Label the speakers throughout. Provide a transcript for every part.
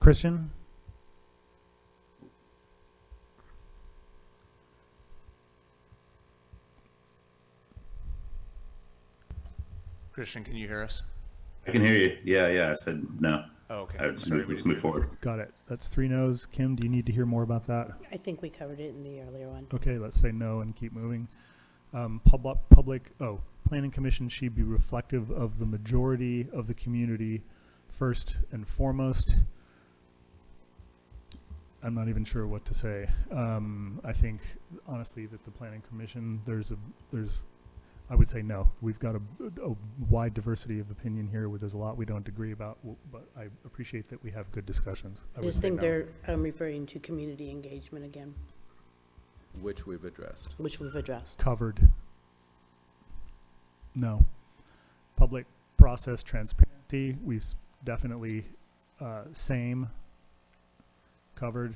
Speaker 1: Christian?
Speaker 2: Christian, can you hear us?
Speaker 3: I can hear you. Yeah, yeah. I said no.
Speaker 2: Oh, okay.
Speaker 3: All right, let's
Speaker 2: Sorry,
Speaker 3: move,
Speaker 2: we
Speaker 3: let's
Speaker 2: didn't
Speaker 3: move
Speaker 2: hear.
Speaker 3: forward.
Speaker 1: Got it. That's three no's. Kim, do you need to hear more about that?
Speaker 4: I think we covered it in the earlier one.
Speaker 1: Okay, let's say no and keep moving. Um, public, public, oh, planning commission should be reflective of the majority of the community first and foremost. I'm not even sure what to say. Um, I think honestly that the planning commission, there's a, there's, I would say no. We've got a, a wide diversity of opinion here where there's a lot we don't agree about, w- but I appreciate that we have good discussions. I
Speaker 4: I
Speaker 1: would
Speaker 4: just
Speaker 1: say
Speaker 4: think
Speaker 1: no.
Speaker 4: they're um, referring to community engagement again,
Speaker 5: which we've addressed.
Speaker 4: which we've addressed.
Speaker 1: covered. No. Public process transparency, we've s- definitely, uh, same, covered.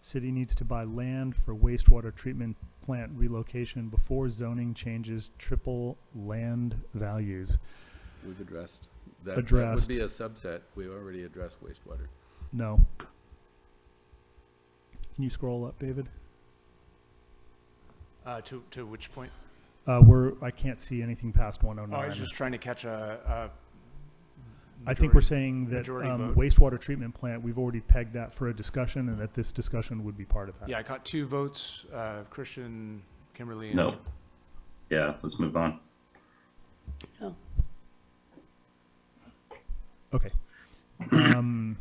Speaker 1: City needs to buy land for wastewater treatment plant relocation before zoning changes triple land values.
Speaker 5: We've addressed. that- That
Speaker 1: Addressed.
Speaker 5: would be a subset. We already addressed wastewater.
Speaker 1: No. Can you scroll up, David?
Speaker 2: Uh, to, to which point?
Speaker 1: Uh, we're, I can't see anything past one oh
Speaker 2: Oh, I
Speaker 1: nine.
Speaker 2: was just trying to catch a, a.
Speaker 1: I think we're
Speaker 2: majority.
Speaker 1: saying that
Speaker 2: majority
Speaker 1: um,
Speaker 2: vote.
Speaker 1: wastewater treatment plant, we've already pegged that for a discussion and that this discussion would be part of that.
Speaker 2: Yeah, I caught two votes, uh, Christian, Kimberly. and-
Speaker 3: No. Yeah, let's move on.
Speaker 4: Oh,
Speaker 1: Okay. Um,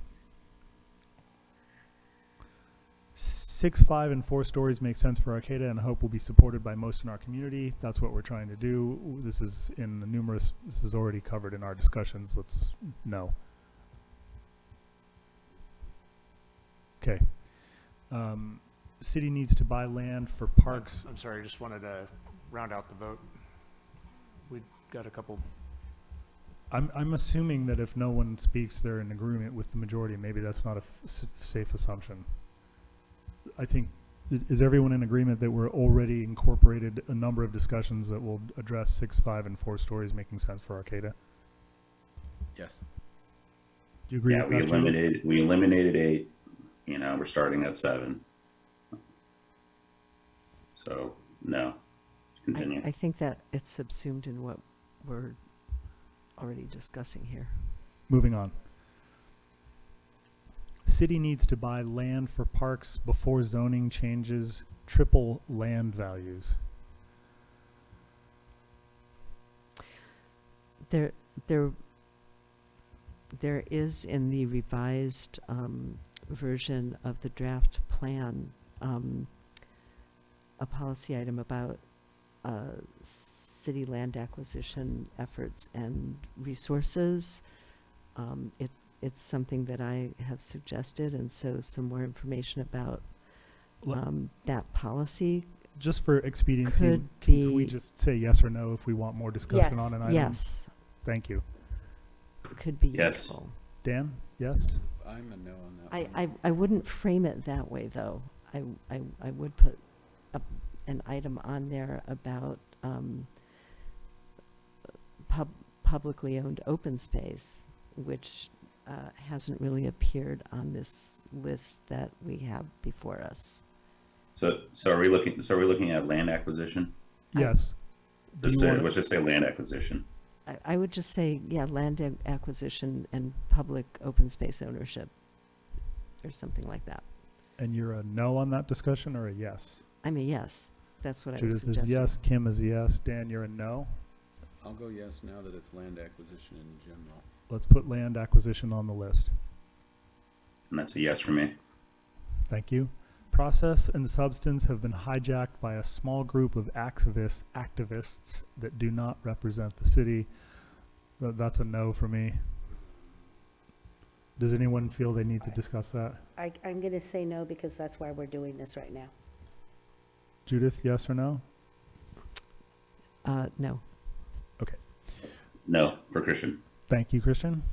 Speaker 1: six, five, and four stories make sense for Arcata and I hope will be supported by most in our community. That's what we're trying to do. This is in the numerous, this is already covered in our discussions. Let's, no. Okay. Um, city needs to buy land for parks.
Speaker 2: I'm sorry, I just wanted to round out the vote. We got a couple,
Speaker 1: I'm, I'm assuming that if no one speaks, they're in agreement with the majority. Maybe that's not a f- s- safe assumption. I think, i- is everyone in agreement that we're already incorporated a number of discussions that will address six, five, and four stories making sense for Arcata?
Speaker 5: Yes.
Speaker 1: Do you agree
Speaker 3: yeah,
Speaker 1: with
Speaker 3: we
Speaker 1: that, Julie?
Speaker 3: eliminated we eliminated eight. You know, we're starting at seven. So no. Continue.
Speaker 6: I, I think that it's subsumed in what we're already discussing here.
Speaker 1: Moving on. City needs to buy land for parks before zoning changes triple land values.
Speaker 6: There, there, there is in the revised um, version of the draft plan um, a policy item about uh, city land acquisition efforts and resources. Um, it, it's something that I have suggested, and so some more information about
Speaker 1: Le-
Speaker 6: um, that policy
Speaker 1: Just for expediency,
Speaker 6: could
Speaker 1: can we
Speaker 6: be-
Speaker 1: just say yes or no if we want more discussion on an item?
Speaker 6: Yes,
Speaker 1: Thank you.
Speaker 6: could be
Speaker 3: Yes.
Speaker 6: useful.
Speaker 1: Dan, yes?
Speaker 5: I'm a no on that
Speaker 6: I,
Speaker 5: one.
Speaker 6: I, I wouldn't frame it that way, though. I, I, I would put a, an item on there about, um, pub, publicly owned open space, which, uh, hasn't really appeared on this list that we have before us.
Speaker 3: so so are we looking so are we looking at land acquisition?
Speaker 6: I-
Speaker 1: Yes. Do
Speaker 3: Let's
Speaker 1: you
Speaker 3: say,
Speaker 1: wanna-
Speaker 3: let's just say land acquisition.
Speaker 6: I, I would just say, yeah, land ac- acquisition and public open space ownership, or something like that.
Speaker 1: And you're a no on that discussion or a yes?
Speaker 6: I mean, yes, that's what I was
Speaker 1: Judith is
Speaker 6: suggesting.
Speaker 1: yes, Kim is yes, Dan, you're a no.
Speaker 5: I'll go yes now that it's land acquisition in general.
Speaker 1: Let's put land acquisition on the list.
Speaker 3: And that's a yes for me.
Speaker 1: Thank you. Process and substance have been hijacked by a small group of activists, activists that do not represent the city. Th- That's a no for me. Does anyone feel they need to discuss that?
Speaker 4: I, I'm going to say no because that's why we're doing this right now.
Speaker 1: Judith, yes or no?
Speaker 6: Uh, no.
Speaker 3: No for Christian.
Speaker 1: Thank you, Christian.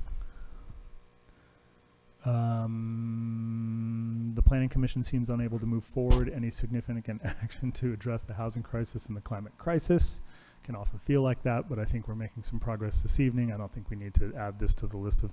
Speaker 1: Um, the planning commission seems unable to move forward any significant action to address the housing crisis and the climate crisis. Can often feel like that, but I think we're making some progress this evening. I don't think we need to add this to the list of